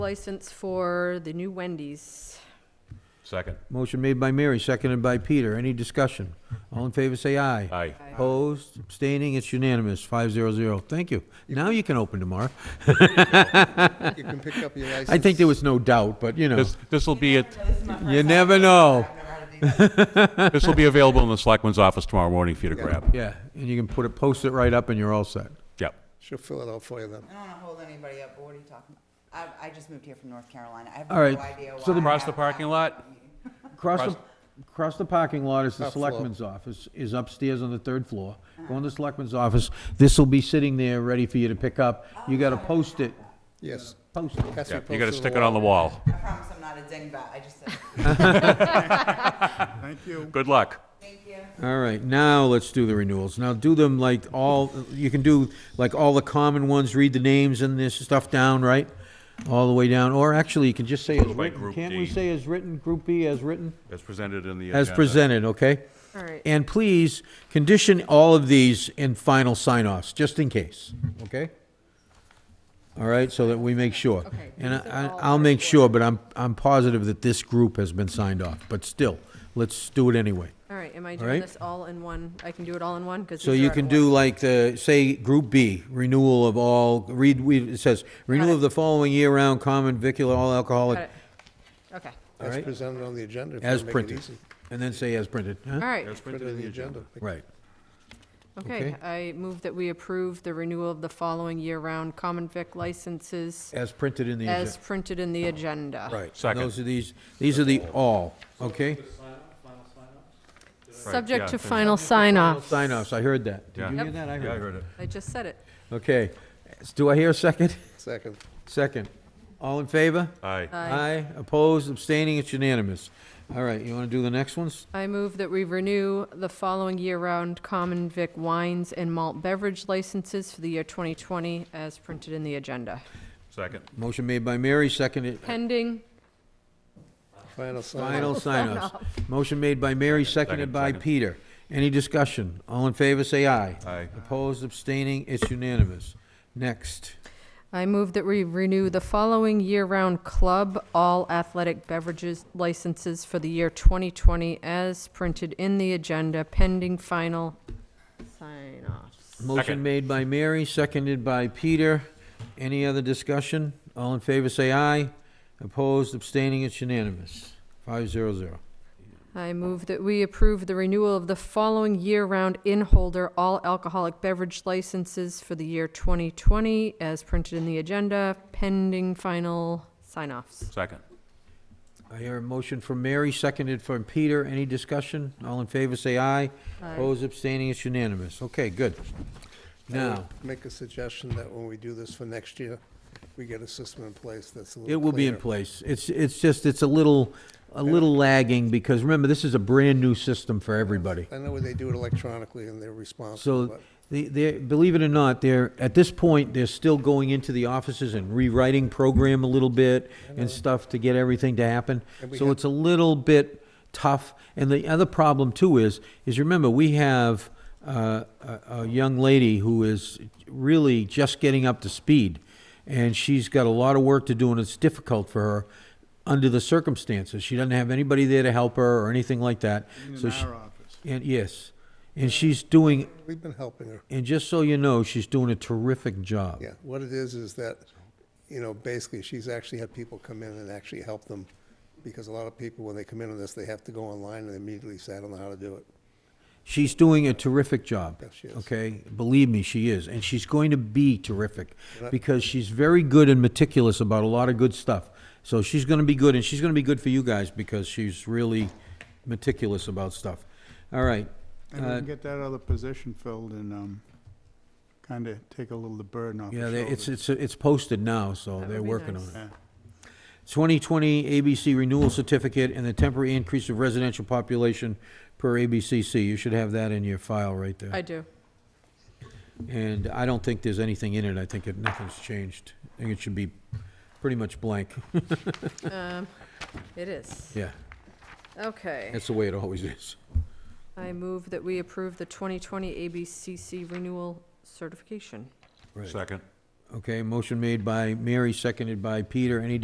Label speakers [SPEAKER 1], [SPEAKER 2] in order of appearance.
[SPEAKER 1] license for the new Wendy's.
[SPEAKER 2] Second.
[SPEAKER 3] Motion made by Mary, seconded by Peter. Any discussion? All in favor, say aye.
[SPEAKER 2] Aye.
[SPEAKER 3] Opposed, abstaining, it's unanimous, five zero zero. Thank you. Now you can open tomorrow.
[SPEAKER 4] You can pick up your license.
[SPEAKER 3] I think there was no doubt, but you know,
[SPEAKER 2] This, this will be, it.
[SPEAKER 3] you never know.
[SPEAKER 2] this will be available in the selectman's office tomorrow morning for you to
[SPEAKER 4] Yeah.
[SPEAKER 2] grab.
[SPEAKER 3] Yeah, and you can put it, post it right up and you're all set.
[SPEAKER 2] Yep.
[SPEAKER 4] She'll fill it out for you then.
[SPEAKER 5] I don't want to hold anybody up, but what are you talking about? I, I just moved here from North Carolina. I have
[SPEAKER 3] All
[SPEAKER 5] no
[SPEAKER 3] right,
[SPEAKER 5] idea why.
[SPEAKER 3] so the-
[SPEAKER 5] I
[SPEAKER 2] Across the
[SPEAKER 5] have-
[SPEAKER 2] parking lot?
[SPEAKER 3] Across the, across the parking lot is the
[SPEAKER 4] Top floor.
[SPEAKER 3] selectman's office, is upstairs on the third floor. Go in the selectman's office, this'll be sitting there, ready for you to pick up. You gotta post it,
[SPEAKER 4] Yes.
[SPEAKER 3] post it.
[SPEAKER 4] Has to
[SPEAKER 2] Yeah,
[SPEAKER 4] be
[SPEAKER 2] you gotta
[SPEAKER 4] posted
[SPEAKER 2] stick it on the wall.
[SPEAKER 5] I promise I'm not a dingbat. I just said,
[SPEAKER 2] Good luck.
[SPEAKER 5] thank you.
[SPEAKER 3] All right, now let's do the renewals. Now do them like all, you can do like all the common ones, read the names and this stuff down, right? All the way down, or actually, you can just say as
[SPEAKER 2] By
[SPEAKER 3] written.
[SPEAKER 2] Group
[SPEAKER 3] Can't we
[SPEAKER 2] D.
[SPEAKER 3] say as written, Group B as written?
[SPEAKER 2] As presented in the
[SPEAKER 3] As
[SPEAKER 2] agenda.
[SPEAKER 3] presented, okay?
[SPEAKER 1] All right.
[SPEAKER 3] And please, condition all of these in final sign-offs, just in case, okay? All right, so that we make sure.
[SPEAKER 1] Okay,
[SPEAKER 3] And
[SPEAKER 1] these are
[SPEAKER 3] I,
[SPEAKER 1] all
[SPEAKER 3] I'll make
[SPEAKER 1] first
[SPEAKER 3] sure, but I'm, I'm positive that this group has been signed off, but still, let's do it anyway.
[SPEAKER 1] All right, am I
[SPEAKER 3] right.
[SPEAKER 1] doing this all in one? I can do it all in one? 'Cause
[SPEAKER 3] So
[SPEAKER 1] these are
[SPEAKER 3] you
[SPEAKER 1] at
[SPEAKER 3] can
[SPEAKER 1] once.
[SPEAKER 3] do like the, say, Group B, renewal of all, read, we- it says, renewal of the following year-round common vicular all
[SPEAKER 1] Got
[SPEAKER 3] alcoholic,
[SPEAKER 1] it. Okay,
[SPEAKER 3] all
[SPEAKER 4] As
[SPEAKER 3] right?
[SPEAKER 4] presented on the agenda. if you
[SPEAKER 3] As
[SPEAKER 4] wanna make it
[SPEAKER 3] printed.
[SPEAKER 4] easy.
[SPEAKER 3] And then say as printed,
[SPEAKER 1] all
[SPEAKER 3] huh?
[SPEAKER 1] right.
[SPEAKER 2] As
[SPEAKER 4] Printed in the agenda.
[SPEAKER 3] Right.
[SPEAKER 1] Okay, I move that we approve the renewal of the following year-round common vic licenses
[SPEAKER 3] As printed in the agenda.
[SPEAKER 1] as printed in the agenda.
[SPEAKER 3] Right. and
[SPEAKER 2] Second.
[SPEAKER 3] Those are these, these are the all, okay?
[SPEAKER 1] Subject
[SPEAKER 2] yeah,
[SPEAKER 1] to
[SPEAKER 2] there's-
[SPEAKER 1] final sign-off.
[SPEAKER 3] Sign-offs, I heard that. Did
[SPEAKER 2] Yeah.
[SPEAKER 3] you hear
[SPEAKER 1] Yep.
[SPEAKER 3] that? I
[SPEAKER 2] Yeah, I
[SPEAKER 3] heard
[SPEAKER 2] heard it.
[SPEAKER 1] I just said it.
[SPEAKER 3] it. Okay. S- Do I hear a second?
[SPEAKER 4] Second.
[SPEAKER 3] Second. All in favor?
[SPEAKER 4] Uh,
[SPEAKER 2] Aye.
[SPEAKER 3] Aye. Opposed, abstaining, it's unanimous. All right, you want to do the next ones?
[SPEAKER 1] I move that we renew the following year-round common vic wines and malt beverage licenses for the year 2020 as printed in the agenda.
[SPEAKER 2] Second.
[SPEAKER 3] Motion made by Mary, seconded,
[SPEAKER 1] Pending,
[SPEAKER 4] Final sign.
[SPEAKER 3] Final sign-offs. Motion made by Mary, seconded
[SPEAKER 2] second,
[SPEAKER 3] by
[SPEAKER 2] second.
[SPEAKER 3] Peter. Any discussion? All in favor, say aye.
[SPEAKER 2] Aye.
[SPEAKER 3] Opposed, abstaining, it's unanimous. Next.
[SPEAKER 1] I move that we renew the following year-round club all athletic beverages licenses for the year 2020 as printed in the agenda pending final sign-offs.
[SPEAKER 3] Motion
[SPEAKER 2] Second.
[SPEAKER 3] made by Mary, seconded by Peter. Any other discussion? All in favor, say aye. Opposed, abstaining, it's unanimous. Five zero zero.
[SPEAKER 1] I move that we approve the renewal of the following year-round in-holder all alcoholic beverage licenses for the year 2020 as printed in the agenda pending final sign-offs.
[SPEAKER 2] Second.
[SPEAKER 3] I hear a motion from Mary, seconded from Peter. Any discussion? All in favor, say aye. Opposed, abstaining, it's unanimous. Okay, good. Now.
[SPEAKER 4] Make a suggestion that when we do this for next year, we get a system in place that's a little
[SPEAKER 3] It will be in
[SPEAKER 4] cleaner.
[SPEAKER 3] place. It's, it's just, it's a little, a little lagging, because remember, this is a brand-new system for everybody.
[SPEAKER 4] I know they do it electronically and they're responsible,
[SPEAKER 3] So,
[SPEAKER 4] but
[SPEAKER 3] they, they, believe it or not, they're, at this point, they're still going into the offices and rewriting program a little bit and stuff to get everything to happen.
[SPEAKER 4] And we
[SPEAKER 3] So
[SPEAKER 4] have-
[SPEAKER 3] it's a little bit tough. And the other problem too is, is remember, we have, uh, a, a young lady who is really just getting up to speed. And she's got a lot of work to do and it's difficult for her under the circumstances. She doesn't have anybody there to help her or anything like that. So she- And, yes. And she's doing
[SPEAKER 4] we've been helping her.
[SPEAKER 3] and just so you know, she's doing a terrific job.
[SPEAKER 4] Yeah, what it is, is that, you know, basically, she's actually had people come in and actually help them, because a lot of people, when they come in on this, they have to go online and immediately say, I don't know how to do it.
[SPEAKER 3] She's doing a terrific job.
[SPEAKER 4] Yes, she is.
[SPEAKER 3] Okay, believe me, she is, and she's going to be terrific because she's very good and meticulous about a lot of good stuff. So she's going to be good, and she's going to be good for you guys because she's really meticulous about stuff. All right.
[SPEAKER 6] And we
[SPEAKER 3] Uh,
[SPEAKER 6] can get that other position filled and, um, kinda take a little of the burden off
[SPEAKER 3] yeah,
[SPEAKER 6] the
[SPEAKER 3] they- it's
[SPEAKER 6] shoulders.
[SPEAKER 3] it's it's posted now, so
[SPEAKER 1] That
[SPEAKER 3] they're
[SPEAKER 1] would be
[SPEAKER 3] working
[SPEAKER 1] nice.
[SPEAKER 3] on it.
[SPEAKER 6] Yeah.
[SPEAKER 3] 2020 ABC renewal certificate and the temporary increase of residential population per ABCC. You should have that in your file right there.
[SPEAKER 1] I do.
[SPEAKER 3] And I don't think there's anything in it, I think it- nothing's changed. I think it should be pretty much blank.
[SPEAKER 1] Um, It is.
[SPEAKER 3] Yeah,
[SPEAKER 1] Okay.
[SPEAKER 3] that's the way it always is.
[SPEAKER 1] I move that we approve the 2020 ABCC renewal certification.
[SPEAKER 3] Right.
[SPEAKER 2] Second.
[SPEAKER 3] Okay, motion made by Mary, seconded by Peter. Any